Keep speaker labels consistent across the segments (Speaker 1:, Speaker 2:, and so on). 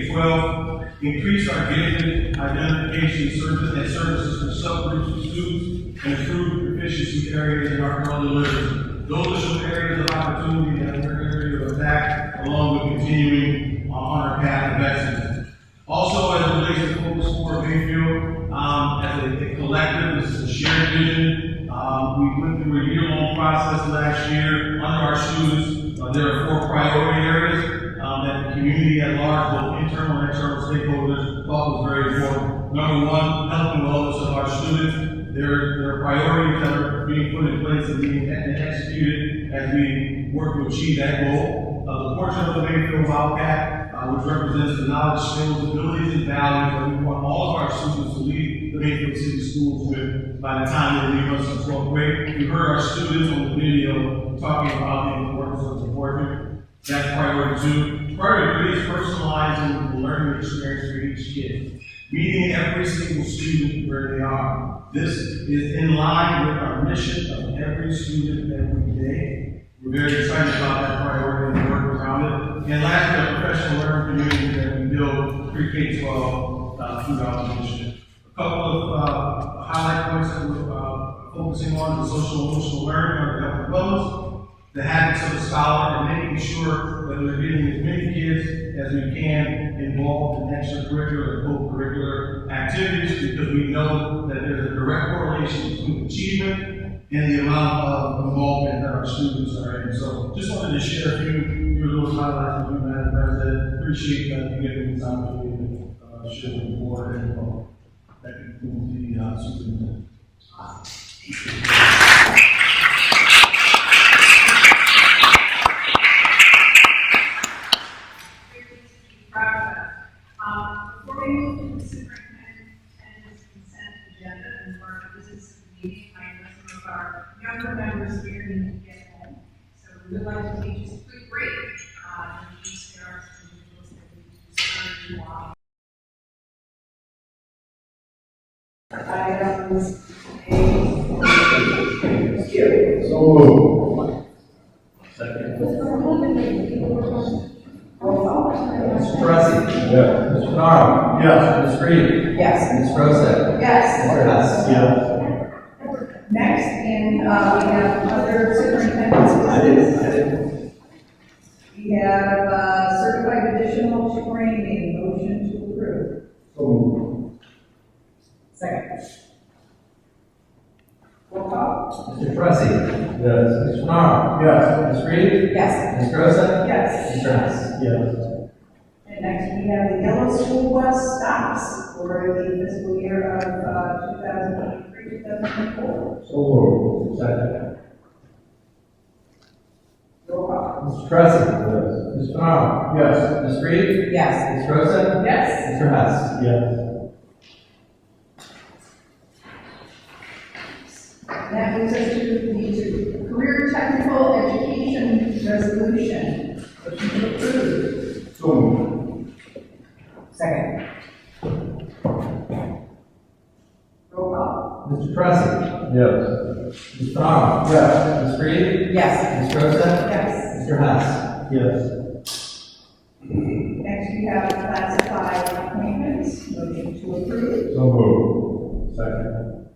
Speaker 1: twelve, increase our gifted identification service and services for subgroups of students and improve proficiency areas in our early learning. Those are some areas of opportunity that we're going to attack along with continuing on our path of excellence. Also, as it relates to focus for Bayfield, um, as a a collective, this is a shared vision. Um, we went through a year-long process last year under our students. Uh, there are four priority areas, um, that the community at large, both internal and external stakeholders, thought was very important. Number one, health and wellness of our students. There, there are priorities that are being put in place and being and executed as we work to achieve that goal. Uh, the portion of the Bayfield Wildcat uh, which represents the knowledge, skills, abilities, and values that we want all of our students to leave the Mayfield City Schools with by the time they leave us in twelfth grade. You heard our students on the video talking about the importance of supporting. That's priority two. Priority three is personalizing the learning experience for each kid meeting every single student where they are. This is in line with our mission of every student every day. We're very excited about that priority and the work around it. And lastly, the professional learning community that we build pre-K twelve uh, throughout the mission. A couple of uh, highlight points that we're uh, focusing on: the social emotional learning or health and wellness, the habits of the scholar, and making sure that we're getting as many kids as we can involved in extracurricular and co-curricular activities, because we know that there's a direct correlation between achievement and the amount of involvement that our students are in. So just wanted to share a few, few little highlights with you, Madam President. Appreciate that you giving this opportunity to uh, share with the board and uh, that concludes the uh, superintendent.
Speaker 2: Um, Before we move to the superintendent's consent agenda and for business meeting, I know some of our younger members here need to get home. So we would like to take just a quick break, uh, and just there are some individuals that we need to start to walk.
Speaker 3: items A.
Speaker 4: So moved.
Speaker 3: Roll call.
Speaker 5: Mr. Pressley.
Speaker 4: Yes.
Speaker 5: Mr. Nara.
Speaker 4: Yes.
Speaker 5: Ms. Reed.
Speaker 3: Yes.
Speaker 5: Ms. Rosa.
Speaker 3: Yes.
Speaker 5: Mr. Hess.
Speaker 4: Yes.
Speaker 3: Next, in, uh, we have other superintendent's business. We have, uh, certified additional training, motion to approve.
Speaker 4: So moved.
Speaker 3: Second. Roll call.
Speaker 5: Mr. Pressley.
Speaker 4: Yes.
Speaker 5: Mr. Nara.
Speaker 4: Yes.
Speaker 5: Ms. Reed.
Speaker 3: Yes.
Speaker 5: Ms. Rosa.
Speaker 3: Yes.
Speaker 5: Mr. Hess.
Speaker 4: Yes.
Speaker 3: And next, we have the yellow school bus stops for the fiscal year of, uh, two thousand twenty-three, two thousand twenty-four.
Speaker 4: So moved. Second.
Speaker 3: Roll call.
Speaker 5: Mr. Pressley.
Speaker 4: Yes.
Speaker 5: Mr. Nara.
Speaker 4: Yes.
Speaker 5: Ms. Reed.
Speaker 3: Yes.
Speaker 5: Ms. Rosa.
Speaker 3: Yes.
Speaker 5: Mr. Hess.
Speaker 4: Yes.
Speaker 3: And That moves us to the career technical education resolution. Motion to approve.
Speaker 4: So moved.
Speaker 3: Second. Roll call.
Speaker 5: Mr. Pressley.
Speaker 4: Yes.
Speaker 5: Mr. Nara.
Speaker 4: Yes.
Speaker 5: Ms. Reed.
Speaker 3: Yes.
Speaker 5: Ms. Rosa.
Speaker 3: Yes.
Speaker 5: Mr. Hess.
Speaker 4: Yes.
Speaker 3: Next, we have classified appointments. Motion to approve.
Speaker 4: So moved. Second.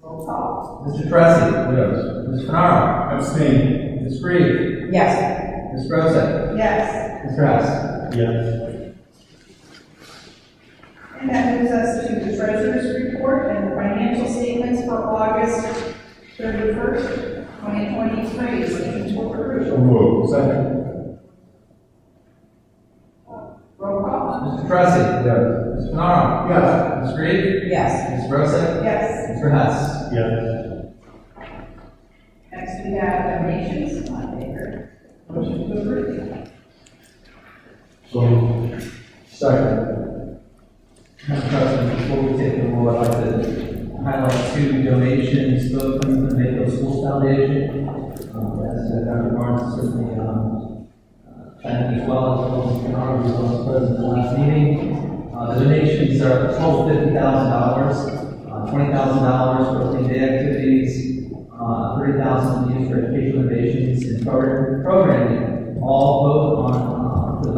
Speaker 3: Roll call.
Speaker 5: Mr. Pressley.
Speaker 4: Yes.
Speaker 5: Mr. Nara.
Speaker 4: Abstain.
Speaker 5: Ms. Reed.
Speaker 3: Yes.
Speaker 5: Ms. Rosa.
Speaker 3: Yes.
Speaker 5: Mr. Hess.
Speaker 4: Yes.
Speaker 3: And that moves us to the treasurer's report and the financial statements for August thirty-first, twenty twenty-three. Motion to approve.
Speaker 4: So moved. Second.
Speaker 3: Roll call.
Speaker 5: Mr. Pressley.
Speaker 4: Yes.
Speaker 5: Mr. Nara.
Speaker 4: Yes.
Speaker 5: Ms. Reed.
Speaker 3: Yes.
Speaker 5: Ms. Rosa.
Speaker 3: Yes.
Speaker 5: Mr. Hess.
Speaker 4: Yes.
Speaker 3: Next, we have donations, on favor. Motion to approve.
Speaker 4: So moved. Second.
Speaker 5: Madam President, before we take the roll, I'd like to highlight two donations, both from the Mayfield School Foundation, um, as Dr. Barnes certainly, um, uh, thanked as well, as well as Mr. Arnold, who was present at the last meeting. Uh, the donations are total fifty thousand dollars, uh, twenty thousand dollars for clean day activities, uh, three thousand used for educational innovations and program- programming, all both on, uh, the